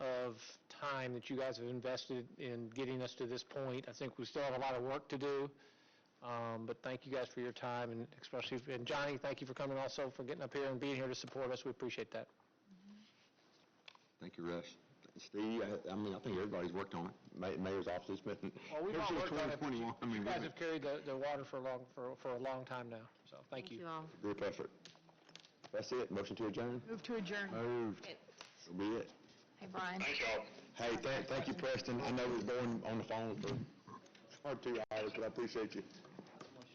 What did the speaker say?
time that you guys have invested in getting us to this point. I think we still have a lot of work to do, um, but thank you guys for your time, and especially, and Johnny, thank you for coming also, for getting up here and being here to support us. We appreciate that. Thank you, Russ. Steve, I I mean, I think everybody's worked on it, Ma- mayor's office, it's been. Well, we've all worked on it. Ever since 2021, I mean, You guys really, have carried the the water for a long, for for a long time now, so thank Thank you you. all. group effort. That's it, motion to adjourn? Move to adjourn. Moved. So be it. Hey, Brian. Hey, thank, thank you, Preston, I know we're going on the phone for, hard two hours, but I appreciate you.